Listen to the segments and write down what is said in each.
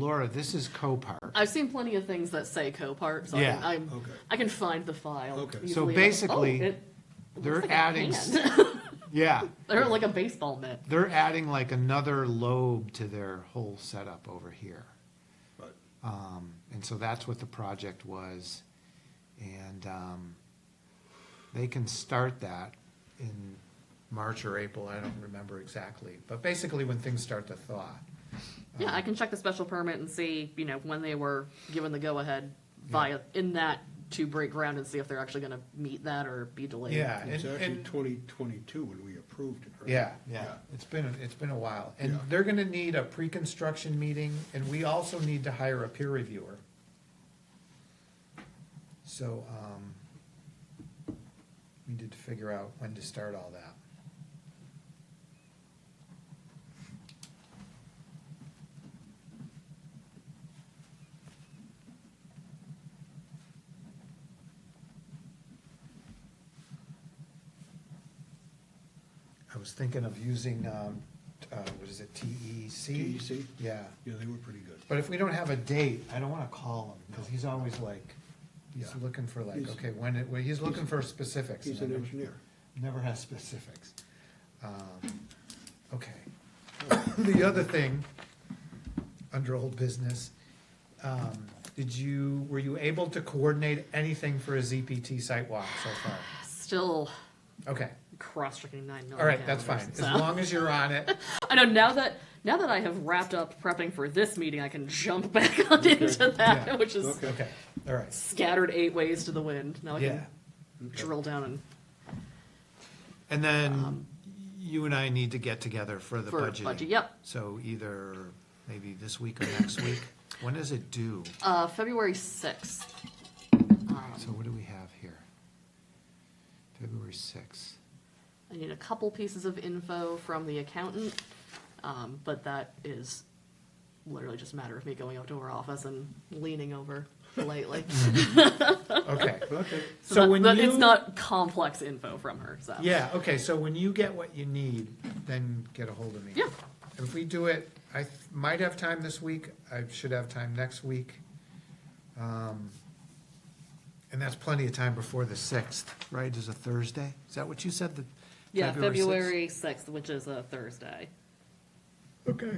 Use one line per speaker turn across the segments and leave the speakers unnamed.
Laura, this is Copart.
I've seen plenty of things that say Copart, so
Yeah.
I, can- I'm,
Okay.
I can find the file.
Okay. So
easily. Like,
basically,
oh, it looks
they're
like a
adding
hand.
Yeah,
they're like a baseball mitt.
Oh.
they're adding like another lobe to their whole setup over here.
But
Um, and so that's what the project was. And, um, they can start that in March or April, I don't remember exactly. But basically when things start to thaw.
Yeah, I can check the special permit and see, you know, when they were given the go-ahead via, in that to break ground and see if they're actually gonna meet that or be delayed.
Yeah,
it's
and,
actually
and,
twenty twenty-two when we approved it, right?
yeah, yeah, it's been, a- it's been a while. And
Yeah.
they're gonna need a pre-construction meeting and we also need to hire a peer reviewer. So, um, we need to figure out when to start all that. I was thinking of using, um, t- uh, what is it, TEC?
TEC?
Yeah,
Yeah, they were pretty good.
but if we don't have a date, I don't wanna call him, cause he's always like, he's
Yeah.
looking for like,
He's-
okay, when, it- well, he's looking for specifics.
He's
and
an
I never-
engineer.
Never has specifics. Um, Okay. The other thing, under old business, um, did you, were you able to coordinate anything for a ZPT site walk so far?
Still
Okay,
cross-checking nine million.
all right, that's fine,
calendars,
as
so.
long as you're on it.
I know now that now that I have wrapped up prepping for this meeting, I can jump back on into that,
Yeah.
which is
Okay.
Okay, all right,
scattered eight ways to the wind. Now I
yeah.
can drill down and
And then you and I need to get together for the
Um, For
budgeting.
budget, yep.
So either maybe this week or next week. When is it due?
uh, February sixth.
So what do we have here? February sixth.
I need a couple pieces of info from the accountant, um, but that is literally just a matter of me going up to her office and leaning over politely.
Okay.
Okay,
Mm-hmm. So
so that-
when
that-
you.
it's not complex info from her. So
Yeah, okay, so when you get what you need, then get a hold of me.
Yeah.
If we do it, I th- might have time this week, I should have time next week. Um, And that's plenty of time before the sixth, right, is a Thursday? Is that what you said, the?
yeah,
sixth?
February sixth, which is a Thursday.
Okay.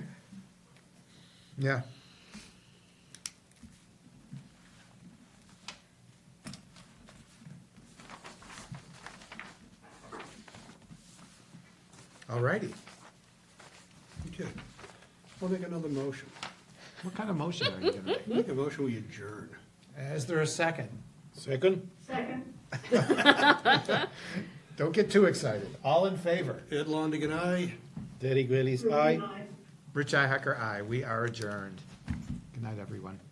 Yeah. All righty.
okay. I'll make another motion.
What kind of motion are you gonna make?
Make a motion, we adjourn.
Is there a second?
Second?
Don't get too excited. All in favor?
Ed Longigan, aye.
Derek Bailey's aye. Rich Ihacker, aye. We are adjourned. Good night, everyone.